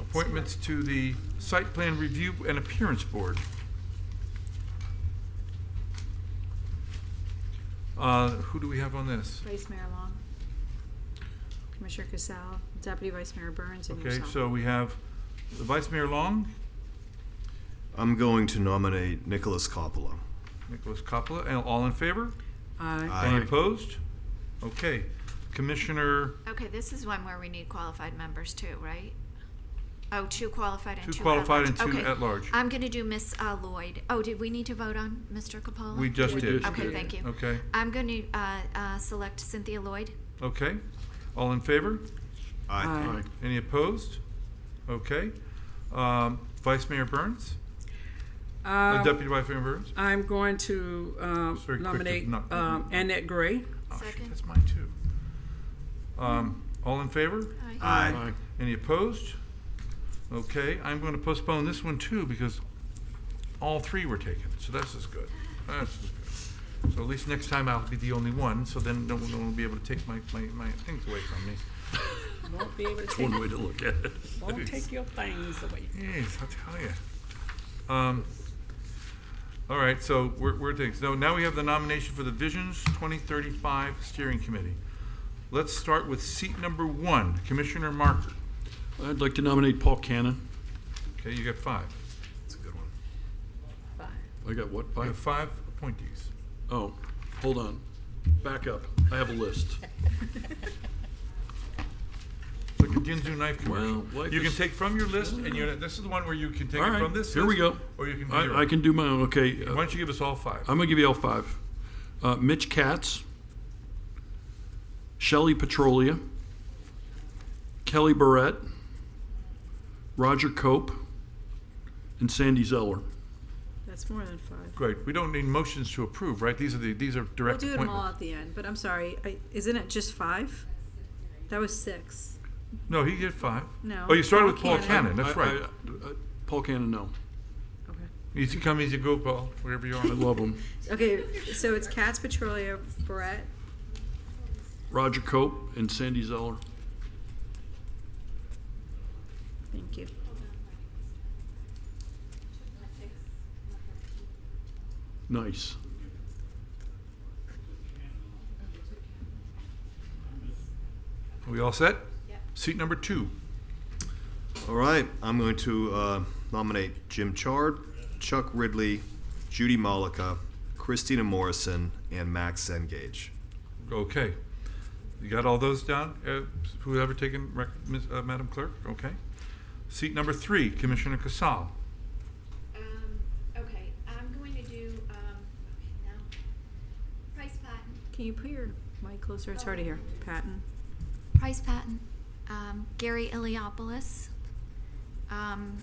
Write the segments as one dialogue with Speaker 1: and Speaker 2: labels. Speaker 1: appointments to the Site Plan Review and Appearance Board. Uh, Who do we have on this?
Speaker 2: Vice Mayor Long, Commissioner Casal, Deputy Vice Mayor Burns, and
Speaker 1: Okay,
Speaker 2: yourself.
Speaker 1: so we have the Vice Mayor Long,
Speaker 3: I'm going to nominate Nicholas Coppola.
Speaker 1: Nicholas Coppola, and all in favor?
Speaker 4: Aye.
Speaker 3: Aye.
Speaker 1: Any opposed? Okay, Commissioner,
Speaker 5: Okay, this is one where we need qualified members too, right? Oh, two qualified and
Speaker 1: Two
Speaker 5: two at large.
Speaker 1: qualified and two
Speaker 5: Okay.
Speaker 1: at large.
Speaker 5: I'm gonna do Miss uh, Lloyd. Oh, did we need to vote on Mr. Capola?
Speaker 1: we just
Speaker 4: We
Speaker 1: did.
Speaker 4: just
Speaker 5: Okay,
Speaker 4: did.
Speaker 5: thank you.
Speaker 1: Okay,
Speaker 5: I'm gonna uh, uh, select Cynthia Lloyd.
Speaker 1: okay. All in favor?
Speaker 4: Aye.
Speaker 1: Any opposed? Okay. Um, Vice Mayor Burns? Uh,
Speaker 4: Um,
Speaker 1: Deputy Vice Mayor Burns?
Speaker 4: I'm going to um,
Speaker 1: Just very quick to
Speaker 4: nominate
Speaker 1: knock-
Speaker 4: um, Annette Gray.
Speaker 1: Oh, shit,
Speaker 5: Second.
Speaker 1: that's mine too. Um, all in favor?
Speaker 3: Aye.
Speaker 1: Any opposed? Okay, I'm going to postpone this one too because all three were taken, so this is good. This is good. So at least next time I'll be the only one, so then no one will be able to take my, my, my things away from me.
Speaker 4: Won't be able to take,
Speaker 6: One way to look at it.
Speaker 4: won't take your things away.
Speaker 1: Yes, I'll tell you. Um, all right, so we're, we're taking, so now we have the nomination for the Visions 2035 Steering Committee. Let's start with seat number one, Commissioner Marker.
Speaker 6: I'd like to nominate Paul Cannon.
Speaker 1: Okay, you got five.
Speaker 3: That's a good one.
Speaker 6: I got what,
Speaker 1: You have
Speaker 6: five?
Speaker 1: five appointees.
Speaker 6: Oh, hold on. Back up. I have a list.
Speaker 1: It's Like a Ginzu knife commercial.
Speaker 6: Well, life
Speaker 1: You can
Speaker 6: is-
Speaker 1: take from your list, and you're, this is the one where you can take
Speaker 6: All
Speaker 1: it
Speaker 6: right,
Speaker 1: from this list.
Speaker 6: here we go.
Speaker 1: Or you can do your
Speaker 6: I, I can do my own, okay.
Speaker 1: Why
Speaker 6: uh,
Speaker 1: don't you give us all five?
Speaker 6: I'm gonna give you all five. Uh, Mitch Katz, Shelley Petrolia, Kelly Barrett, Roger Cope, and Sandy Zeller.
Speaker 4: That's more than five.
Speaker 1: Great, we don't need motions to approve, right? These are the, these are
Speaker 7: We'll
Speaker 1: direct
Speaker 7: do them all
Speaker 1: appointments.
Speaker 7: at the end, but I'm sorry, I- isn't it just five? That was six.
Speaker 1: No, he did five.
Speaker 7: No,
Speaker 1: Oh, you started
Speaker 7: Paul
Speaker 1: with Paul Cannon,
Speaker 7: Cannon.
Speaker 1: that's
Speaker 6: I-
Speaker 1: right.
Speaker 6: I- I- Paul Cannon, no.
Speaker 1: Easy come, easy go, Paul, wherever you
Speaker 6: I
Speaker 1: are.
Speaker 6: love him.
Speaker 7: Okay, so it's Katz, Petrolia, Brett,
Speaker 6: Roger Cope and Sandy Zeller.
Speaker 7: thank you.
Speaker 6: Nice.
Speaker 1: Are we all set? Seat number two.
Speaker 3: All right, I'm going to uh, nominate Jim Chard, Chuck Ridley, Judy Malika, Christina Morrison, and Max Engage.
Speaker 1: Okay. You got all those down? Uh, Whoever taken, rec- Ms., uh, Madam Clerk? Okay. Seat number three, Commissioner Casal.
Speaker 5: Um, okay, I'm going to do, um, now, Price Patton.
Speaker 7: Can you put your mic closer? It's hard to hear. Patton,
Speaker 5: Price Patton, um, Gary Iliopoulos, um,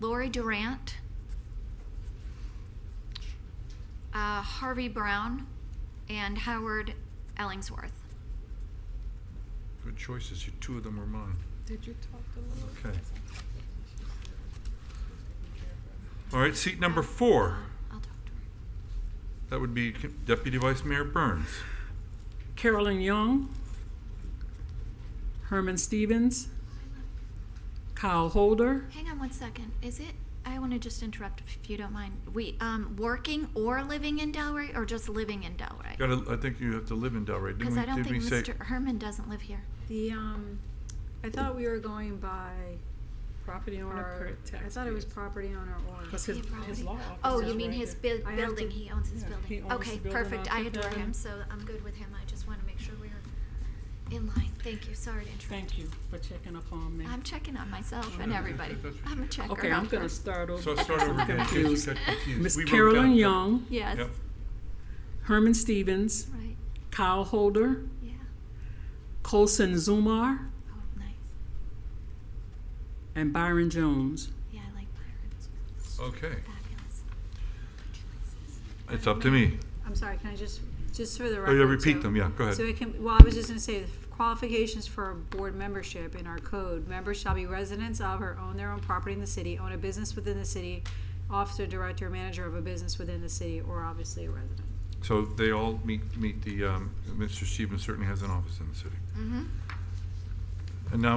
Speaker 5: Lori Durant, uh, Harvey Brown, and Howard Ellingsworth.
Speaker 1: Good choices, You- two of them were mine.
Speaker 4: Did you talk to Lou?
Speaker 1: Okay. All right, seat number four.
Speaker 5: I'll talk to her.
Speaker 1: That would be Deputy Vice Mayor Burns.
Speaker 4: Carolyn Young, Herman Stevens, Kyle Holder.
Speaker 5: Hang on one second. Is it? I want to just interrupt if you don't mind. We um, working or living in Delray, or just living in Delray?
Speaker 1: Gotta, I think you have to live in Delray. Didn't
Speaker 5: Because
Speaker 1: we-
Speaker 5: I don't
Speaker 1: didn't we
Speaker 5: think
Speaker 1: say-
Speaker 5: Mr. Herman doesn't live here.
Speaker 7: the, um, I thought we were going by,
Speaker 4: Property
Speaker 7: or,
Speaker 4: owner per
Speaker 7: I thought it was
Speaker 4: taxpayer.
Speaker 7: property owner or.
Speaker 4: Because his, his law office
Speaker 5: Oh,
Speaker 4: is
Speaker 5: you mean
Speaker 4: right
Speaker 5: his
Speaker 4: there.
Speaker 5: bu-
Speaker 7: I have
Speaker 5: building,
Speaker 7: to-
Speaker 5: he owns his
Speaker 4: Yeah, he
Speaker 5: building.
Speaker 4: owns the
Speaker 5: Okay,
Speaker 4: building,
Speaker 5: perfect, I
Speaker 4: I took
Speaker 5: adore
Speaker 4: that
Speaker 5: him,
Speaker 4: in.
Speaker 5: so I'm good with him, I just wanna make sure we're in line, thank you, sorry to interrupt.
Speaker 4: Thank you for checking up on me.
Speaker 5: I'm checking on myself and
Speaker 1: no,
Speaker 5: everybody,
Speaker 1: that's what
Speaker 5: I'm a checker.
Speaker 4: Okay, I'm
Speaker 5: not
Speaker 4: gonna
Speaker 5: first.
Speaker 4: start over.
Speaker 1: So start over again. in case you
Speaker 4: Confused.
Speaker 1: got confused.
Speaker 4: Miss
Speaker 1: We wrote
Speaker 4: Carolyn
Speaker 1: down-
Speaker 4: Young,
Speaker 5: Yes,
Speaker 1: Yep.
Speaker 4: Herman Stevens,
Speaker 5: right,
Speaker 4: Kyle Holder,
Speaker 5: yeah,
Speaker 4: Colson Zumar,
Speaker 5: oh, nice,
Speaker 4: and Byron Jones.
Speaker 5: yeah, I like Byron's,
Speaker 4: Oh.
Speaker 1: Okay,
Speaker 5: fabulous.
Speaker 1: it's up to me.
Speaker 7: I'm sorry, can I just, just for the
Speaker 1: Oh,
Speaker 7: record?
Speaker 1: yeah, repeat
Speaker 7: so-
Speaker 1: them, yeah, go
Speaker 7: So
Speaker 1: ahead.
Speaker 7: it can, well, I was just gonna say, the qualifications for board membership in our code, members shall be residents of or own their own property in the city, own a business within the city, officer, director, manager of a business within the city, or obviously a resident.
Speaker 1: So they all meet, meet the, um, Mr. Stevens certainly has an office in the city.
Speaker 5: Mm-hmm.
Speaker 1: And now